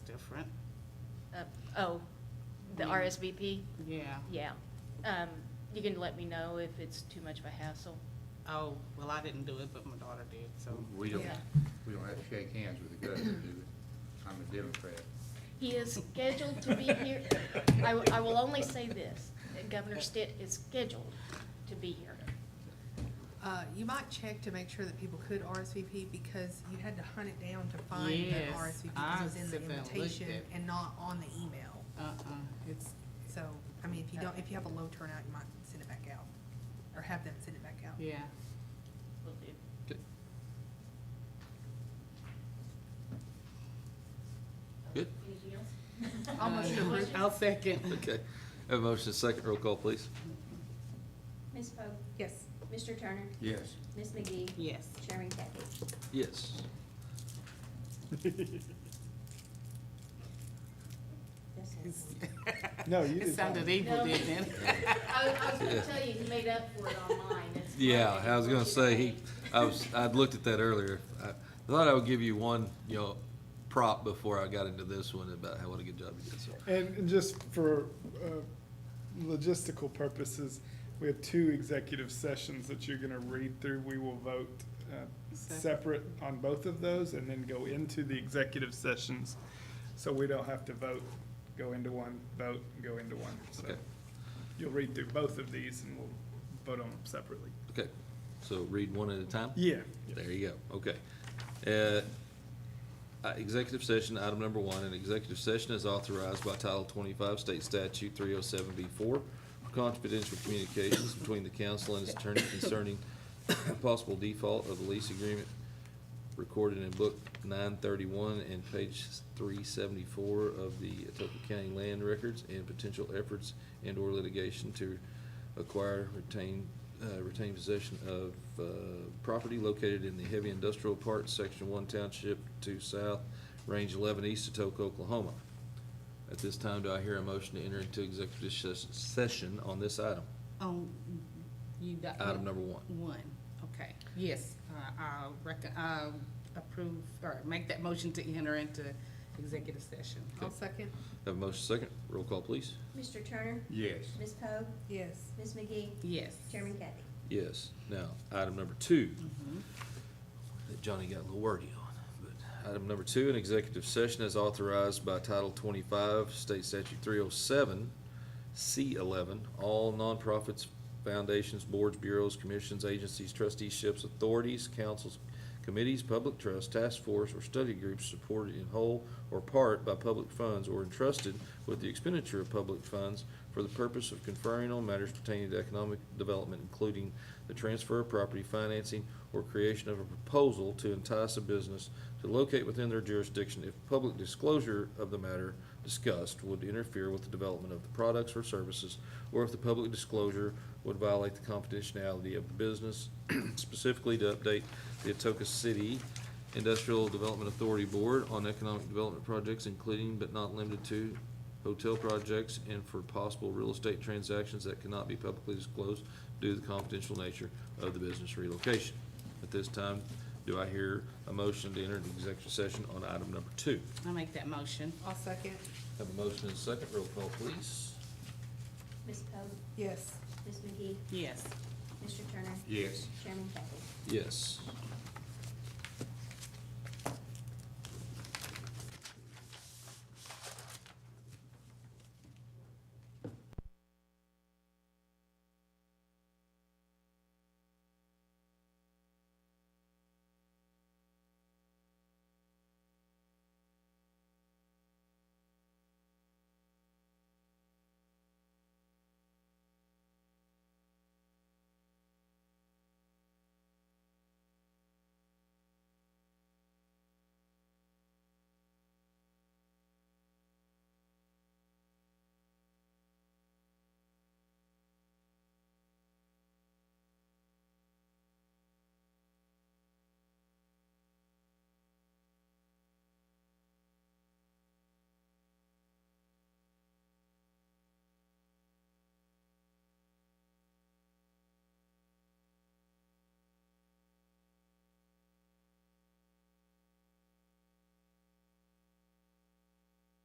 Uh, Oh, the Yeah. RSVP? Yeah. Yeah. Um, You can let me know if it's too much of a hassle. Oh, well, I didn't do it, but my daughter did, so. We don't, Yeah. we don't have to shake hands with the governor, do we? I'm a Democrat. He is scheduled to be here. I, will- I will only say this, that Governor Stitt is scheduled to be here. Uh, you might check to make sure that people could RSVP because you had to hunt it down to find Yes, the RSVP because I it was in the sit there and looked invitation at it. and not on the email. Uh-uh, it's, So, I mean, if you don't, if you have a low turnout, you might send it back out or have them send it back out. yeah. Will do. Good, Anything else? Almost Uh, sure. I'll second. okay. Have a motion, second, roll call, please. Ms. Pope, Yes. Mr. Turner, Yes. Ms. McGee, Yes. Chairman Kathy. Yes. That's it. No, you It did sounded evil, No. didn't it? I, was- I was gonna Yeah. tell you, he made up for it online. It's Yeah, fine. I was gonna say, he, I was, I'd looked at that earlier. I thought I would give you one, you know, prop before I got into this one about how, what a good job you did, so. And and just for uh, logistical purposes, we have two executive sessions that you're going to read through. We will vote uh, separate on both of those and then go into the executive sessions. So we don't have to vote, go into one, vote, and go into one. So Okay. you'll read through both of these and we'll vote on them separately. Okay, so read one at a time? Yeah. There you go, okay. Uh, uh, Executive session, item number one, an executive session is authorized by Title twenty-five State Statute three oh seven B four for confidential communications between the council and its attorney concerning possible default of the lease agreement recorded in book nine thirty-one and page three seventy-four of the Etoka County Land Records and potential efforts and/or litigation to acquire, retain, uh, retain possession of, uh, property located in the heavy industrial part, section one township two south, range eleven east, Etoka, Oklahoma. At this time, do I hear a motion to enter into executive ses- session on this item? Um, you got. Item number one. One, okay, yes, uh, I'll rec- uh, approve, or make that motion to enter into executive session. I'll second. Have a motion second, roll call please. Mr. Turner, Yes. Ms. Poe, Yes. Ms. McGee, Yes. Chairman Kathy. Yes. Now, item number two, Mm-hmm. that Johnny got a little wordy on, but item number two, an executive session is authorized by Title twenty-five, State Statute three oh seven, C eleven, all nonprofits, foundations, boards, bureaus, commissions, agencies, trusteeships, authorities, councils, committees, public trusts, task force, or study groups supported in whole or part by public funds or entrusted with the expenditure of public funds for the purpose of conferring on matters pertaining to economic development, including the transfer of property, financing, or creation of a proposal to entice a business to locate within their jurisdiction if public disclosure of the matter discussed would interfere with the development of the products or services, or if the public disclosure would violate the confidentiality of the business, specifically to update the Atoka City Industrial Development Authority Board on economic development projects, including but not limited to hotel projects and for possible real estate transactions that cannot be publicly disclosed due to the confidential nature of the business relocation. At this time, do I hear a motion to enter the executive session on item number two? I'll make that motion. I'll second. Have a motion and a second, roll call please. Ms. Poe, Yes. Ms. McGee, Yes. Mr. Turner, Yes. Chairman Kathy. Yes.